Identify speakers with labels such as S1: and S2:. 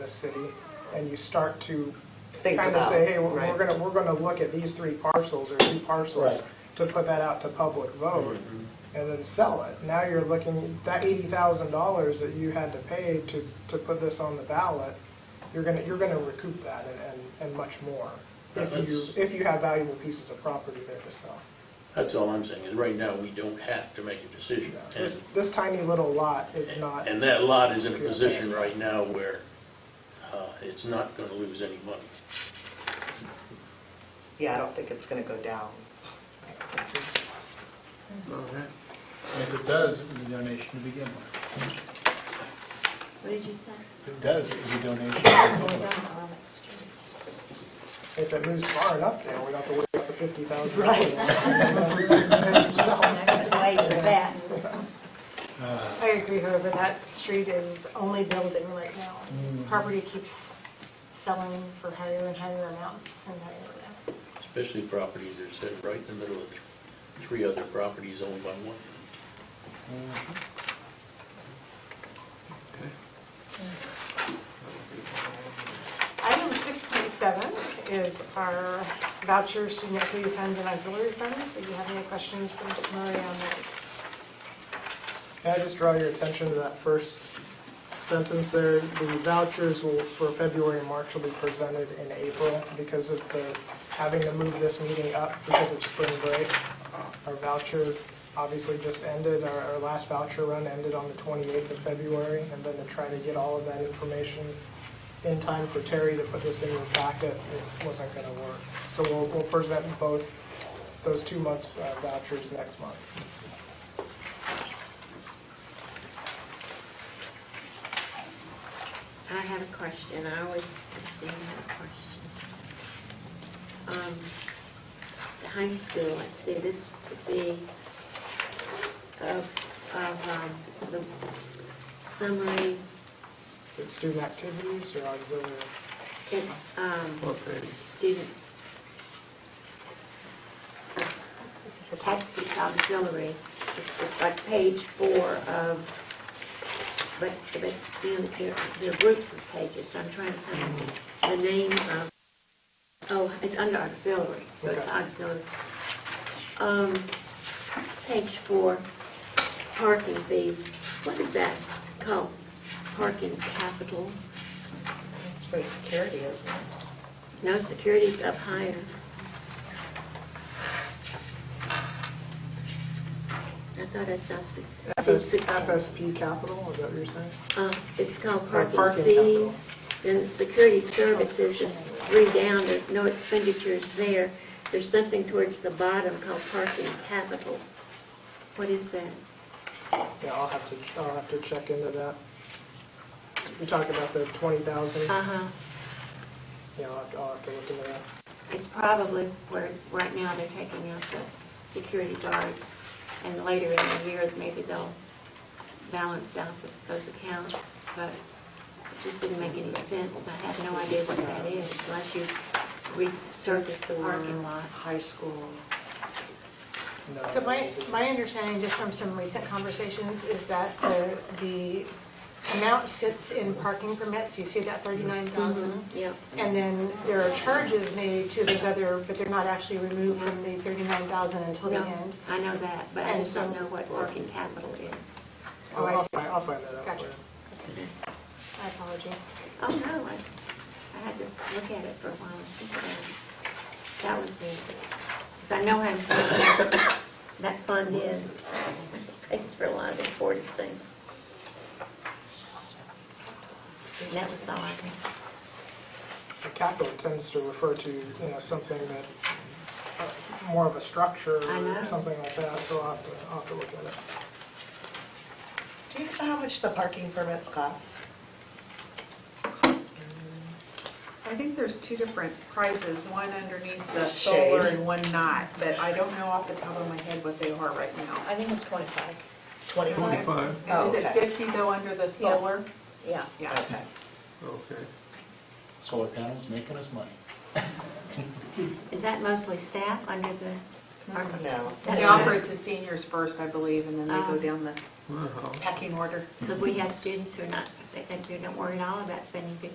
S1: this city, and you start to
S2: Think
S1: kind of
S2: about,
S1: say, hey, we're,
S2: right.
S1: we're gonna, we're gonna look at these three parcels or two parcels
S3: Right.
S1: to put that out to public vote,
S3: Mm-hmm.
S1: and then sell it. Now you're looking, that eighty thousand dollars that you had to pay to, to put this on the ballot, you're gonna, you're gonna recoup that and, and, and much more. If you,
S3: That's-
S1: if you have valuable pieces of property there to sell.
S3: That's all I'm saying, is right now, we don't have to make a decision.
S1: This, this tiny little lot is not,
S3: And that lot is in a position right now where uh, it's not going to lose any money.
S2: Yeah, I don't think it's gonna go down.
S4: And if it does, it was a donation to begin with.
S5: What did you say?
S4: If it does, it was a donation to begin with.
S1: if it moves far enough down, we don't have to worry about the fifty thousand.
S2: Right.
S5: That's way for that.
S6: I agree, however, that street is only building right now. Property keeps selling for higher and higher amounts and higher and
S3: Especially properties that are set right in the middle of th- three other properties owned by one.
S6: higher. Item 6.7 is our vouchers, student activity funds, and auxiliary funds. Do you have any questions for Mr. Murray on those?
S1: Can I just draw your attention to that first sentence there? The vouchers will, for February and March will be presented in April because of the, having to move this meeting up because of spring break. Our voucher obviously just ended, our, our last voucher run ended on the 28th of February, and then to try to get all of that information in time for Terry to put this in your packet, it wasn't going to work. So we'll, we'll present both those two months' uh, vouchers next month.
S5: I have a question. I always seem to have a question. Um, The high school, let's see, this would be of, of um, the summary,
S1: Is it student activities or auxiliary?
S5: it's um, student. it's- it's- The tactics auxiliary, it's it's like page four of But, but, you know, there, there are groups of pages, I'm trying to find the name of, oh, it's under auxiliary, so it's
S1: Okay.
S5: auxiliary. Um, page four, parking fees, what is that called? Parking capital?
S2: It's for security, isn't it?
S5: No, security's up higher. I thought I saw, se- I think
S1: FS
S5: se-
S1: FSP Capital, is that what you're saying?
S5: Uh, It's called
S1: Or
S5: parking
S1: parking capital.
S5: fees. Then security services is three down, there's no expenditures there. There's something towards the bottom called parking capital. What is that?
S1: Yeah, I'll have to, I'll have to check into that. You talk about the twenty thousand, yeah,
S5: Uh-huh.
S1: I'll have, I'll have to look into that.
S5: It's probably where, right now, they're taking out the security guards, and later in the year, maybe they'll balance out the- those accounts, but it just didn't make any sense. I have no idea what that is unless you resurface the parking lot.
S2: High school.
S1: No,
S6: So my, my understanding, just from some recent conversations, is that the, the amount sits in parking permits, you see that thirty-nine thousand?
S5: Yep.
S6: And then there are charges made to those other, but they're not actually removed from the thirty-nine thousand until the
S5: No,
S6: end.
S5: I know that, but I
S6: And
S5: just don't
S6: so-
S5: know what working capital is.
S1: I'll,
S6: Oh, I
S1: I'll
S6: see.
S1: find, I'll find that out.
S6: Gotcha.
S1: for you.
S6: I apologize.
S5: Oh, no, I, I had to look at it for a while and think about it. That was the, because I know how important that fund is. It's for a lot of important things. And that was all I had.
S1: The capital tends to refer to, you know, something that, uh, more of a structure
S5: I know.
S1: or something like that, so I'll have to, I'll have to look at it.
S2: Do you know how much the parking permits cost?
S7: I think there's two different prices, one underneath the
S2: Shade.
S7: solar and one not, but I don't know off the top of my head what they are right now.
S8: I think it's 25.
S2: Twenty-five?
S7: And Is it
S2: Oh, Okay.
S7: 50 though under the solar?
S8: Yeah.
S7: Yeah.
S2: Okay.
S4: Solar panels making us money.
S5: Is that mostly staff under the?
S2: No.
S7: They offer it to seniors first, I believe, and then they go
S5: Um.
S7: down the pecking order.
S5: So we have students who are not, they, they don't worry at all about spending fifty